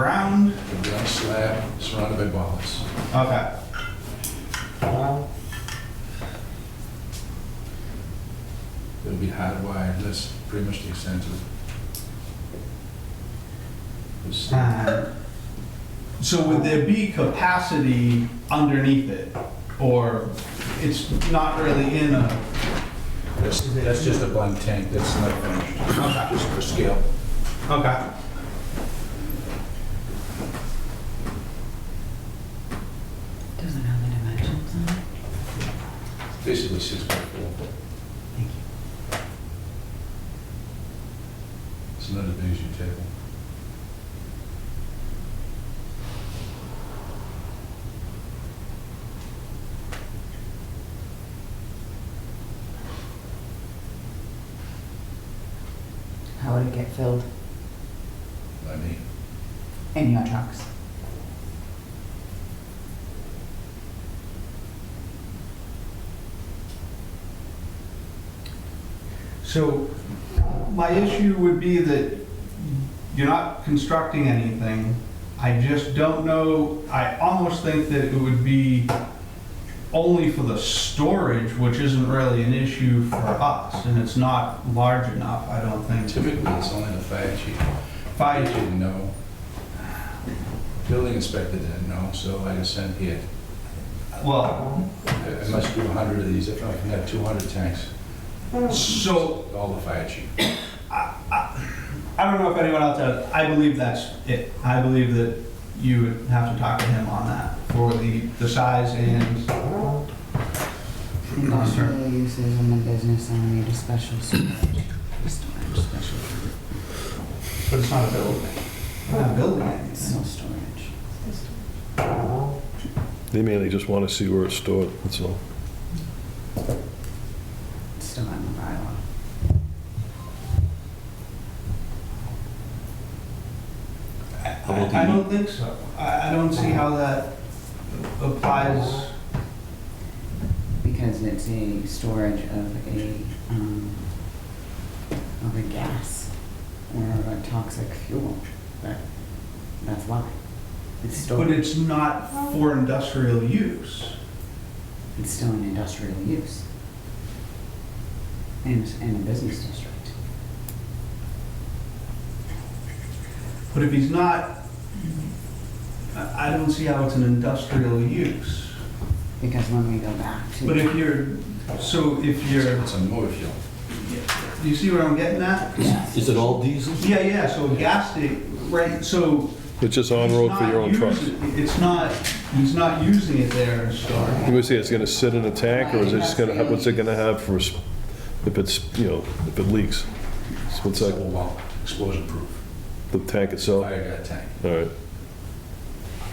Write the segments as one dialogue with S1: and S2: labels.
S1: ground?
S2: The ground slab surrounded by bollards.
S1: Okay.
S2: It'll be hardwired, that's pretty much the extent of it. It's-
S1: Um, So would there be capacity underneath it? Or it's not really in a,
S2: That's that's just a blunt tank, that's not finished, just for scale.
S1: okay.
S3: Doesn't have the dimensions on it.
S2: Basically six by four.
S3: Thank
S2: It's not as big as your table.
S3: you. How would it get filled?
S2: I mean,
S3: In your trucks?
S1: So my issue would be that you're not constructing anything. I just don't know, I almost think that it would be only for the storage, which isn't really an issue for us, and it's not large enough, I don't think.
S2: typically, it's only the fire chief. I
S1: Fire,
S2: didn't know. Building inspector didn't know, so I just sent here.
S1: well,
S2: I I must do 100 of these, if not, I can have 200 tanks,
S1: so
S2: all the fire chief.
S1: I don't know if anyone else has. I believe that's it. I believe that you would have to talk to him on that for the, the size and,
S3: Industrial uses in the business and we need a special storage. Storage, special,
S1: but it's not a building. We're Not building anything.
S3: still storage.
S4: They mainly just want to see where it's stored, that's all.
S3: It's Still in the bylaw.
S1: I I don't think so. I, I don't see how that applies.
S3: Because it's a storage of a, um, of a gas or a toxic fuel. That- That's why. It's
S1: But
S3: still,
S1: it's not for industrial use.
S3: it's still an industrial use. And, and a business district.
S1: But if he's not, I, I don't see how it's an industrial use.
S3: Because when we go back to.
S1: But if you're, so if you're,
S2: It's a motor fuel.
S1: do you see where I'm getting at?
S3: Yes.
S5: Is it all diesel?
S1: Yeah, yeah, so a gas station, right, so.
S4: It's just on-road for your own
S1: he's not
S4: truck.
S1: using- It's not, he's not using it there as storage.
S4: You would say it's going to sit in a tank, or is it just going to have, what's it going to have for, s- if it's, you know, if it leaks? So
S2: It's
S4: What's
S2: like,
S4: that,
S2: well, explosion proof,
S4: the tank itself?
S2: fire guy tank.
S4: All right,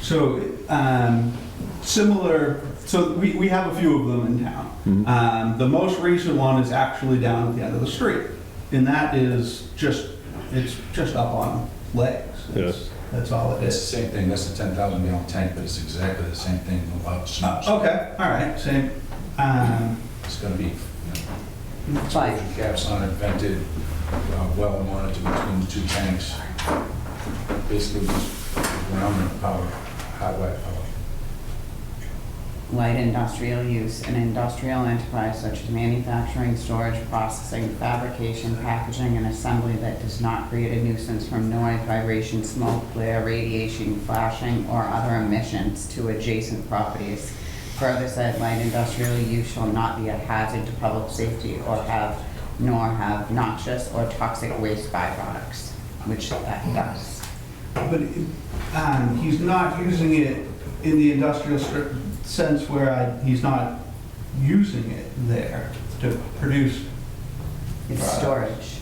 S1: So, um, similar, so we, we have a few of them in town.
S4: Mhm.
S1: Um, the most recent one is actually down at the end of the street, and that is just, it's just up on legs. It's- That's all it
S2: It's
S1: is.
S2: the same thing, that's the 10,000 gallon tank, but it's exactly the same thing, a lot of snow.
S1: Okay, all right, same, um,
S2: It's gonna be, you
S3: But
S2: know, caps on it, vented, uh, well monitored between the two tanks. Basically, just ground and power, hot wire power.
S3: light industrial use, an industrial enterprise such as manufacturing, storage, processing, fabrication, packaging, and assembly that does not create a nuisance from noise, vibration, smoke, glare, radiation, flashing, or other emissions to adjacent properties. Further said, light industrial use shall not be a hazard to public safety or have, nor have noxious or toxic waste byproducts, which that does.
S1: But um, he's not using it in the industrial str- sense where I, he's not using it there to produce.
S3: It's storage.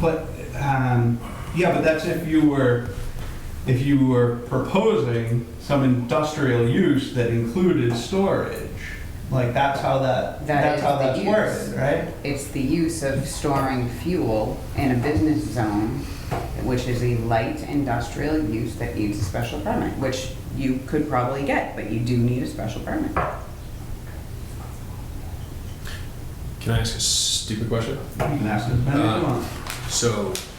S1: But, um, yeah, but that's if you were, if you were proposing some industrial use that included storage. Like, that's how that,
S3: That
S1: that's
S3: is
S1: how
S3: the
S1: that's
S3: use.
S1: worded, right?
S3: It's the use of storing fuel in a business zone, which is a light industrial use that needs a special permit, which you could probably get, but you do need a special permit.
S6: Can I ask a stupid question?
S1: You can ask it, but if you
S6: Uh,
S1: want.
S2: So